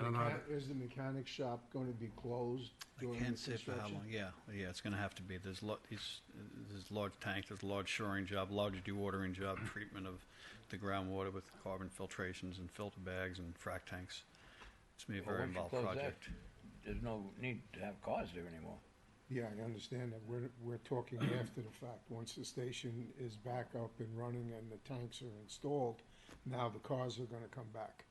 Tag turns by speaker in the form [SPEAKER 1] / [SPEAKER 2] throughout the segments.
[SPEAKER 1] Robert?
[SPEAKER 2] Is the mechanic shop going to be closed
[SPEAKER 1] I
[SPEAKER 2] during the
[SPEAKER 1] can't say for how long,
[SPEAKER 2] construction?
[SPEAKER 1] yeah, yeah, it's gonna have to be, there's lot, it's, there's large tank, there's a large shoring job, large dewatering job, treatment of the groundwater with carbon filtrations and filter bags and frac tanks. It's gonna be a
[SPEAKER 3] Well,
[SPEAKER 1] very
[SPEAKER 3] once you
[SPEAKER 1] involved
[SPEAKER 3] close that,
[SPEAKER 1] project.
[SPEAKER 3] There's no need to have cars there anymore.
[SPEAKER 2] Yeah, I understand that. We're, we're talking after the fact. Once the station is back up and running and the tanks are installed, now the cars are gonna come back.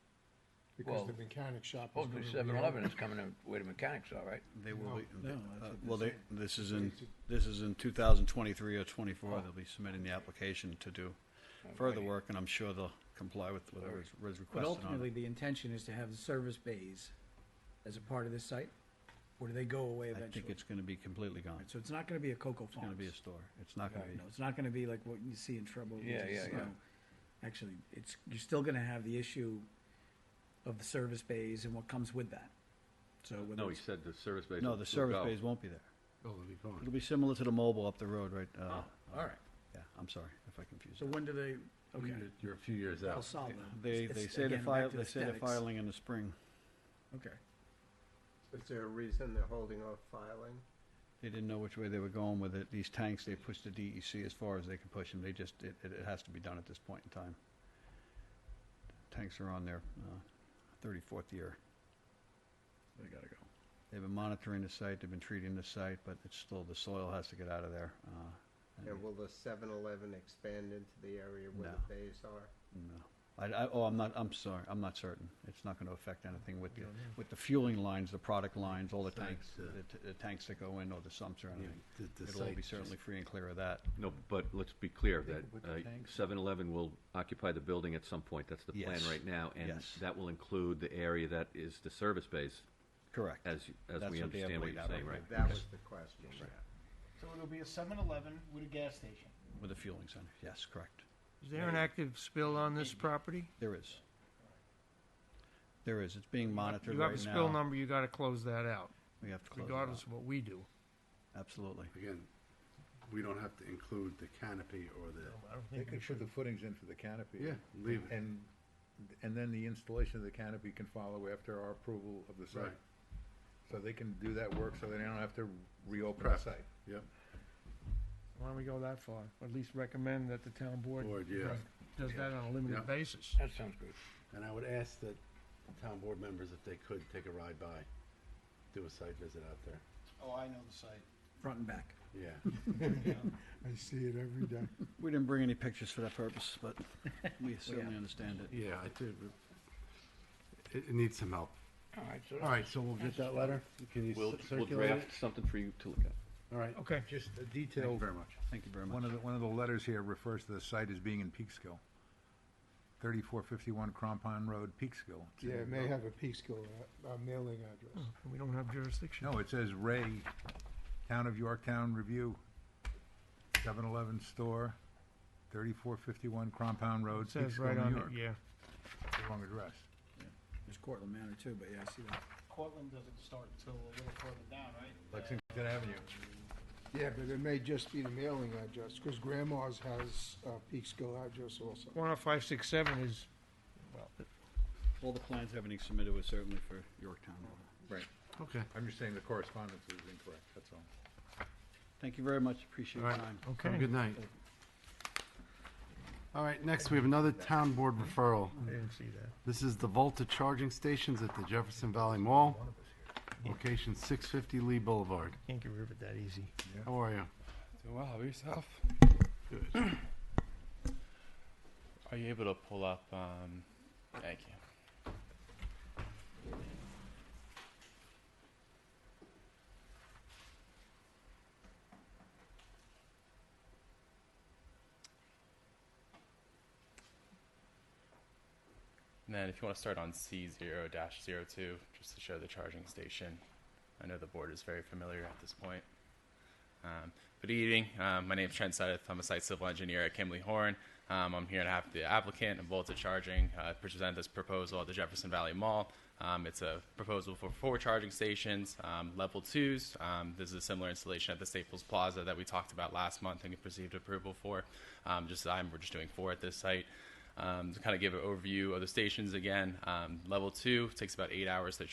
[SPEAKER 2] Because
[SPEAKER 3] Well,
[SPEAKER 2] the mechanic shop is
[SPEAKER 3] Hopefully
[SPEAKER 2] gonna be
[SPEAKER 3] seven eleven
[SPEAKER 2] open.
[SPEAKER 3] is coming in where the mechanics are, right?
[SPEAKER 1] They will be,
[SPEAKER 4] No,
[SPEAKER 1] uh,
[SPEAKER 4] that's what
[SPEAKER 1] well,
[SPEAKER 4] they're
[SPEAKER 1] they, this is in,
[SPEAKER 2] It's a-
[SPEAKER 1] this is in two thousand twenty-three or twenty-four,
[SPEAKER 3] Oh.
[SPEAKER 1] they'll be submitting the application to do further
[SPEAKER 3] Okay.
[SPEAKER 1] work, and I'm sure they'll comply with whatever is- was
[SPEAKER 4] But
[SPEAKER 1] requested on
[SPEAKER 4] ultimately,
[SPEAKER 1] it.
[SPEAKER 4] the intention is to have the service bays as a part of this site, or do they go away
[SPEAKER 1] I
[SPEAKER 4] eventually?
[SPEAKER 1] think it's gonna be completely gone,
[SPEAKER 4] Alright, So it's not gonna be a Cocoa
[SPEAKER 1] it's gonna
[SPEAKER 4] Farms?
[SPEAKER 1] be a store, it's not gonna
[SPEAKER 3] Right.
[SPEAKER 1] be.
[SPEAKER 4] No, it's not gonna be like what you see in Trumbull. which
[SPEAKER 3] Yeah,
[SPEAKER 4] is,
[SPEAKER 3] yeah, yeah.
[SPEAKER 4] you know, Actually, it's, you're still gonna have the issue of the service bays and what comes with that. So whether
[SPEAKER 5] No, he
[SPEAKER 4] it's,
[SPEAKER 5] said the service bays.
[SPEAKER 1] No,
[SPEAKER 5] will-
[SPEAKER 1] the
[SPEAKER 5] will
[SPEAKER 1] service
[SPEAKER 5] go.
[SPEAKER 1] bays won't be there.
[SPEAKER 2] Oh, it'll be gone.
[SPEAKER 1] It'll be similar to the mobile up the road, right? uh,
[SPEAKER 3] Oh, all right.
[SPEAKER 1] Yeah, I'm sorry if I confused.
[SPEAKER 4] so when do they, okay,
[SPEAKER 5] You're- You're a few years
[SPEAKER 4] I'll
[SPEAKER 5] out.
[SPEAKER 4] solve them.
[SPEAKER 1] They,
[SPEAKER 4] It's-
[SPEAKER 1] they
[SPEAKER 4] it's,
[SPEAKER 1] say they're
[SPEAKER 4] again, back
[SPEAKER 1] filing,
[SPEAKER 4] to
[SPEAKER 1] they say they're
[SPEAKER 4] aesthetics.
[SPEAKER 1] filing in the spring.
[SPEAKER 4] Okay,
[SPEAKER 6] Is there a reason they're holding off filing?
[SPEAKER 1] They didn't know which way they were going with it. These tanks, they pushed the DEC as far as they could push them. They just, it, it it has to be done at this point in time. Tanks are on their uh, thirty-fourth year.
[SPEAKER 4] they gotta go.
[SPEAKER 1] They've been monitoring the site, they've been treating the site, but it's still, the soil has to get out of there. uh, and-
[SPEAKER 6] And will the 7-Eleven expand into the area where
[SPEAKER 1] No.
[SPEAKER 6] the bays are?
[SPEAKER 1] No. I, I, oh, I'm not, I'm sorry, I'm not certain. It's not gonna affect anything with the, with the fueling lines, the product lines, all the tanks,
[SPEAKER 5] Thanks, uh,
[SPEAKER 1] the, t- the tanks that go in or the sumps or
[SPEAKER 5] Yeah,
[SPEAKER 1] anything.
[SPEAKER 5] the- the
[SPEAKER 1] It'll all
[SPEAKER 5] site
[SPEAKER 1] be
[SPEAKER 5] just-
[SPEAKER 1] certainly free and clear of that.
[SPEAKER 5] No, but let's be clear
[SPEAKER 1] They
[SPEAKER 5] that
[SPEAKER 1] could put the tanks-
[SPEAKER 5] 7-Eleven will occupy the building at some point. That's the plan
[SPEAKER 1] Yes.
[SPEAKER 5] right now. And
[SPEAKER 1] Yes.
[SPEAKER 5] that will include the area that is the service bays,
[SPEAKER 1] Correct.
[SPEAKER 5] as, you- as
[SPEAKER 1] That's
[SPEAKER 5] we
[SPEAKER 1] what they have
[SPEAKER 5] understand what
[SPEAKER 1] laid
[SPEAKER 5] you're
[SPEAKER 1] out
[SPEAKER 5] saying,
[SPEAKER 1] right
[SPEAKER 5] right?
[SPEAKER 6] That was the question, yeah.
[SPEAKER 7] So it'll be a 7-Eleven with a gas station.
[SPEAKER 1] With a fueling center, yes, correct.
[SPEAKER 7] Is there an active spill on this property?
[SPEAKER 1] There is. There is, it's being monitored
[SPEAKER 7] You have a
[SPEAKER 1] right
[SPEAKER 7] spill
[SPEAKER 1] now.
[SPEAKER 7] number, you gotta close that out,
[SPEAKER 1] We have to close it out.
[SPEAKER 7] regardless of what we do.
[SPEAKER 1] Absolutely.
[SPEAKER 8] Again, we don't have to include the canopy or the,
[SPEAKER 9] They could put the footings in for the canopy.
[SPEAKER 8] yeah, leave it,
[SPEAKER 9] And, and then the installation of the canopy can follow after our approval of the
[SPEAKER 8] right,
[SPEAKER 9] site. So they can do that work, so they don't have to reopen the
[SPEAKER 8] Prep.
[SPEAKER 9] site.
[SPEAKER 8] yep,
[SPEAKER 7] Why don't we go that far? Or At least recommend that the town board
[SPEAKER 8] board, yeah.
[SPEAKER 7] does that on a
[SPEAKER 8] Yeah.
[SPEAKER 7] limited basis.
[SPEAKER 3] That sounds good.
[SPEAKER 8] And I would ask that town board members, if they could, take a ride by, do a site visit out there,
[SPEAKER 7] Oh, I know the site.
[SPEAKER 4] Front and back.
[SPEAKER 8] yeah.
[SPEAKER 2] I see it every day.
[SPEAKER 1] We didn't bring any pictures for that purpose, but we certainly understand it.
[SPEAKER 8] Yeah, I do, it, it needs some help.
[SPEAKER 3] All right, so.
[SPEAKER 8] All right, so we'll get that letter, can you
[SPEAKER 5] We'll,
[SPEAKER 8] cir-
[SPEAKER 5] we'll
[SPEAKER 8] circulate it?
[SPEAKER 5] draft something for you to look at.
[SPEAKER 8] All right,
[SPEAKER 7] Okay.
[SPEAKER 8] just a
[SPEAKER 9] Thank
[SPEAKER 8] detail.
[SPEAKER 9] you
[SPEAKER 8] very much.
[SPEAKER 1] Thank you very much.
[SPEAKER 9] One of the, one of the letters here refers to the site as being in Peekskill. Thirty-four fifty-one Crampon Road, Peekskill. It's
[SPEAKER 2] Yeah, it
[SPEAKER 9] in-
[SPEAKER 2] may have a Peekskill, uh, uh, mailing address.
[SPEAKER 1] Oh.
[SPEAKER 7] We don't have jurisdiction.
[SPEAKER 9] No, it says Ray, Town of Yorktown Review, 7-Eleven store, thirty-four fifty-one Crampon Road,
[SPEAKER 7] It Says right
[SPEAKER 9] Peekskill,
[SPEAKER 7] on
[SPEAKER 9] New
[SPEAKER 7] it,
[SPEAKER 9] York.
[SPEAKER 7] yeah.
[SPEAKER 9] It's the Wrong address.
[SPEAKER 4] There's Cortland Manor too, but yeah, I see that.
[SPEAKER 7] Cortland doesn't start until a little further down, right?
[SPEAKER 9] Lexington Avenue.
[SPEAKER 2] Yeah, but it may just be the mailing address, because grandma's has a Peekskill address also.
[SPEAKER 7] One oh five six seven is, well,
[SPEAKER 1] All the plans, everything submitted was certainly for Yorktown. Right.
[SPEAKER 8] Okay,
[SPEAKER 9] I'm just saying the correspondence is incorrect, that's all.
[SPEAKER 1] Thank you very much, appreciate
[SPEAKER 8] all
[SPEAKER 1] your
[SPEAKER 8] right,
[SPEAKER 1] time.
[SPEAKER 8] have a
[SPEAKER 7] okay.
[SPEAKER 8] good night. All right, next we have another town board referral.
[SPEAKER 7] I didn't see that.
[SPEAKER 8] This is the Volta charging stations at the Jefferson Valley Mall, location 650 Lee Boulevard.
[SPEAKER 7] Can't get rid of it that easy.
[SPEAKER 8] How are you?
[SPEAKER 10] Doing well. How about yourself? Are you able to pull up? Um, thank you. And then, if you want to start on C0 02, just to show the charging station. I know the board is very familiar at this point. Um, good evening. Um, my name is Trent Seth. I'm a site civil engineer at Kimley Horn. Um, I'm here on behalf of the applicant and Volta Charging uh, to present this proposal at the Jefferson Valley Mall. Um, it's a proposal for four charging stations, um, level twos. Um, this is a similar installation at the Staples Plaza that we talked about last month and received approval for. Um, just I'm, we're just doing four at this site. Um, to kind of give an overview of the stations again, um, level two takes about eight hours to